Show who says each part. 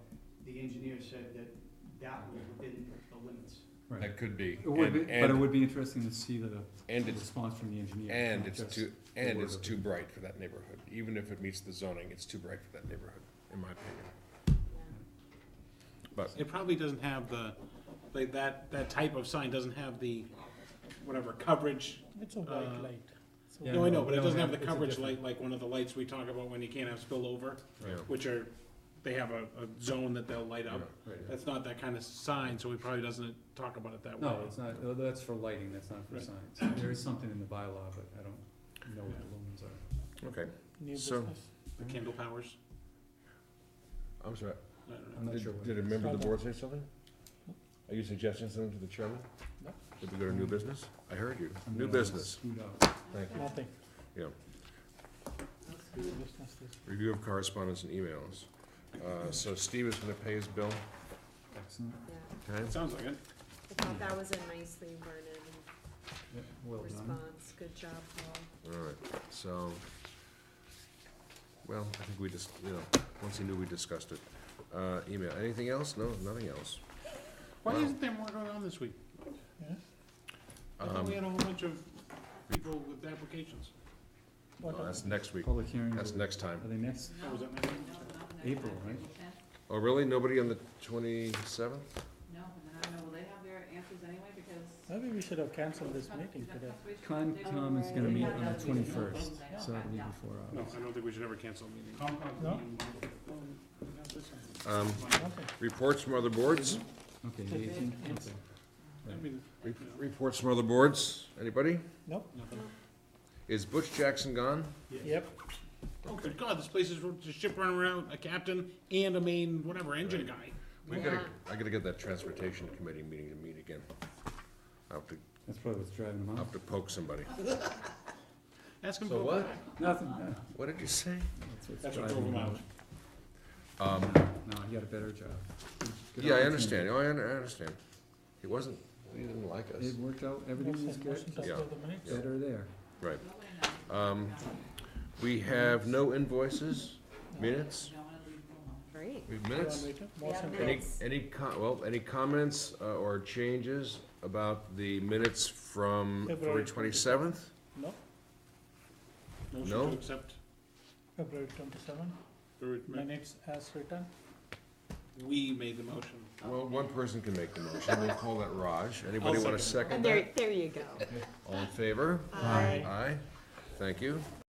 Speaker 1: engineer said that that was within the limits.
Speaker 2: Right.
Speaker 3: That could be.
Speaker 2: It would be,
Speaker 3: And-
Speaker 2: but it
Speaker 3: and-
Speaker 2: would be interesting to see the
Speaker 3: And
Speaker 2: the
Speaker 3: it's,
Speaker 2: response from the engineer.
Speaker 3: and
Speaker 2: not
Speaker 3: it's
Speaker 2: just-
Speaker 3: too, and
Speaker 2: word
Speaker 3: it's
Speaker 2: of it.
Speaker 3: too bright for that neighborhood. Even if it meets the zoning, it's too bright for that neighborhood, in my opinion. But,
Speaker 4: It probably doesn't have the, like, that, that type of sign doesn't have the, whatever, coverage.
Speaker 5: It's a
Speaker 4: Uh,
Speaker 5: white light. So
Speaker 2: Yeah,
Speaker 4: No, I know,
Speaker 2: no,
Speaker 4: but it
Speaker 2: no,
Speaker 4: doesn't have
Speaker 2: no,
Speaker 4: the
Speaker 2: it's a
Speaker 4: coverage
Speaker 2: different-
Speaker 4: light, like one of the lights we talk about when you can't have spillover,
Speaker 3: yeah,
Speaker 4: which are, they have a, a zone that they'll light up. That's not that kind of sign, so we probably doesn't talk about it that way.
Speaker 2: No, it's not, uh, that's for lighting, that's not for
Speaker 4: Right.
Speaker 2: signs. There is something in the bylaw, but I don't know what the lumens are.
Speaker 3: okay.
Speaker 5: New
Speaker 3: So-
Speaker 5: business.
Speaker 4: The Kindle powers,
Speaker 3: I'm sorry,
Speaker 4: I don't know.
Speaker 2: I'm not sure
Speaker 3: did
Speaker 2: what.
Speaker 3: did a member of the board say something? Are you suggesting something to the chairman?
Speaker 5: No.
Speaker 3: Did we go to new business? I heard you.
Speaker 2: I'm
Speaker 3: New
Speaker 2: gonna
Speaker 3: business,
Speaker 2: scoot out.
Speaker 3: thank you.
Speaker 5: Nothing.
Speaker 3: Yeah.
Speaker 5: New business this.
Speaker 3: Review of correspondence and emails. Uh, so Steve is gonna pay his bill,
Speaker 2: Excellent.
Speaker 3: okay?
Speaker 4: Sounds like it.
Speaker 6: I thought that was a nicely worded
Speaker 2: Yeah, Well done.
Speaker 6: response, good job, Paul.
Speaker 3: All right, so, well, I think we just, you know, once he knew, we discussed it. Uh, email, anything else? No, nothing else.
Speaker 4: Why
Speaker 3: Wow.
Speaker 4: isn't there more going on this week?
Speaker 5: Yeah.
Speaker 4: I thought
Speaker 3: Um,
Speaker 4: we had a whole bunch of people with applications.
Speaker 5: What
Speaker 3: oh,
Speaker 5: else?
Speaker 3: That's next week,
Speaker 2: Public hearing,
Speaker 3: that's
Speaker 2: are
Speaker 3: next time.
Speaker 2: they next,
Speaker 4: Oh, was that my name?
Speaker 2: April, right?
Speaker 3: Oh, really? Nobody on the twenty-seventh?
Speaker 7: No, and then I don't know, will they have their answers anyway, because.
Speaker 5: Maybe we should have canceled this meeting today.
Speaker 2: Concom is gonna meet on the twenty-first,
Speaker 7: Yeah.
Speaker 2: so that'll be before
Speaker 4: No,
Speaker 2: ours.
Speaker 4: I don't think we should ever cancel a meeting.
Speaker 5: No?
Speaker 3: Um,
Speaker 5: Nothing.
Speaker 3: reports from other boards?
Speaker 2: Okay, the eighteenth, okay.
Speaker 4: I mean,
Speaker 3: Re- Reports from other boards? Anybody?
Speaker 5: Nope.
Speaker 3: Is Butch Jackson gone?
Speaker 5: Yep.
Speaker 4: Oh, good God, this place is a ship running around, a captain and a main, whatever, engine guy.
Speaker 3: We gotta, I gotta get that transportation committee meeting to meet again. I'll have to,
Speaker 2: That's probably what's driving them
Speaker 3: I'll
Speaker 2: out.
Speaker 3: have to poke somebody.
Speaker 4: Ask him
Speaker 3: So
Speaker 4: to go
Speaker 3: what?
Speaker 4: back.
Speaker 2: Nothing, no,
Speaker 3: What did you say?
Speaker 2: that's what's
Speaker 4: That's what drove
Speaker 2: driving
Speaker 4: him
Speaker 2: them
Speaker 4: out.
Speaker 2: out.
Speaker 3: Um,
Speaker 2: No, he got a better job. Good
Speaker 3: Yeah, I
Speaker 2: opportunity.
Speaker 3: understand, oh, I un- I understand. He wasn't, he didn't like us.
Speaker 2: It worked out, everything was good,
Speaker 5: Motion to
Speaker 3: Yeah.
Speaker 5: approve the minutes.
Speaker 2: better there.
Speaker 3: Right. Um, we have no invoices, minutes,
Speaker 6: Great.
Speaker 3: we
Speaker 5: You
Speaker 3: have
Speaker 5: want
Speaker 3: minutes.
Speaker 5: me to?
Speaker 6: Yeah,
Speaker 5: Motion to-
Speaker 3: Any,
Speaker 6: minutes.
Speaker 3: any co- well, any comments uh, or changes about the minutes from February
Speaker 5: February
Speaker 3: twenty-seventh?
Speaker 5: No,
Speaker 4: Motion
Speaker 3: No.
Speaker 4: to accept.
Speaker 5: February twenty-seven, minutes as written.
Speaker 4: We made the motion.
Speaker 3: Well, one person can make the motion, we'll call that Raj. Anybody wanna
Speaker 4: second.
Speaker 3: second
Speaker 6: And there,
Speaker 3: that?
Speaker 6: there you go.
Speaker 3: All in favor?
Speaker 6: Aye.
Speaker 3: Aye, thank you.